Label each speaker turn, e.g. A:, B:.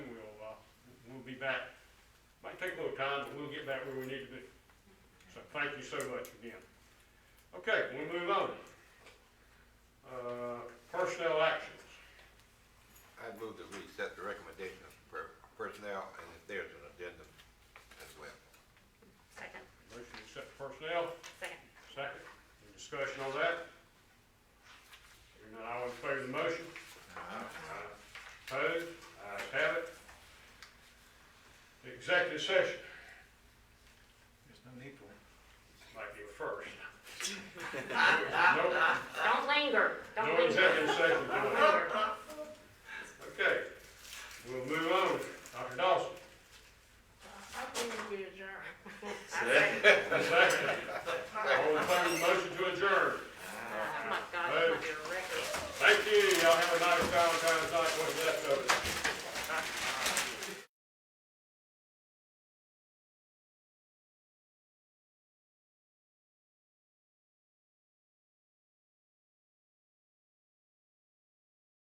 A: we'll be back. Might take a little time, but we'll get back where we need to be. So thank you so much again. Okay, we move on. Uh, personnel actions.
B: I'd move that we accept the recommendation of per- personnel, and if there's an addendum as well.
C: Second,
A: Motion to accept personnel,
C: second.
A: second. Any discussion on that? Hearing none, all in favor of the motion? Aye. Opposed? Ayes have it. Executive session,
D: There's no need for it.
A: might be a first. No-
C: Don't linger, don't
A: No
C: linger.
A: executive session
C: Don't
A: tonight.
C: linger.
A: Okay, we'll move on. Dr. Dawson.
C: I think we adjourn. I second.
A: Second.
C: Oh